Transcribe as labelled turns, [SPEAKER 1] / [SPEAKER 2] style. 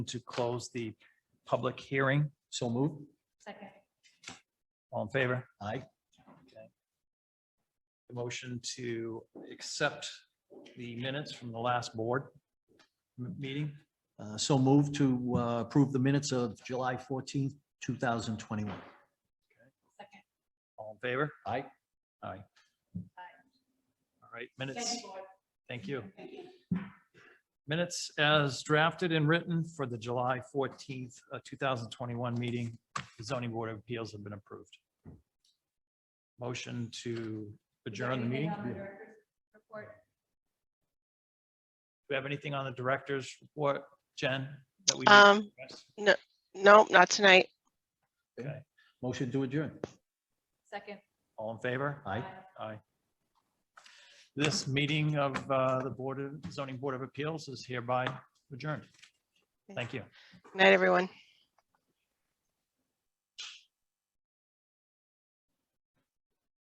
[SPEAKER 1] to close the public hearing.
[SPEAKER 2] So move.
[SPEAKER 3] Second.
[SPEAKER 1] All in favor?
[SPEAKER 2] Aye.
[SPEAKER 1] The Motion to accept the minutes from the last board m- meeting.
[SPEAKER 2] Uh, So move to uh, approve the minutes of July fourteenth, two thousand twenty-one.
[SPEAKER 3] Second.
[SPEAKER 1] All in favor?
[SPEAKER 2] Aye.
[SPEAKER 1] Aye. Aye. All right, minutes.
[SPEAKER 3] Thank you, Board.
[SPEAKER 1] Thank you.
[SPEAKER 3] Thank you.
[SPEAKER 1] Minutes as drafted and written for the July fourteenth, uh, two thousand twenty-one meeting. The zoning board of appeals have been approved. Motion to adjourn the meeting.
[SPEAKER 3] Anything on the
[SPEAKER 1] Do
[SPEAKER 3] director's Report.
[SPEAKER 1] we have anything on the director's report, Jen? that we need to
[SPEAKER 4] Um,
[SPEAKER 1] address?
[SPEAKER 4] Nope, not tonight.
[SPEAKER 1] Okay,
[SPEAKER 2] Motion to adjourn.
[SPEAKER 3] Second.
[SPEAKER 1] all in favor?
[SPEAKER 2] Aye.
[SPEAKER 1] Aye. This meeting of uh, the Board of Zoning Board of Appeals is hereby adjourned. Thank you.
[SPEAKER 4] Night, everyone.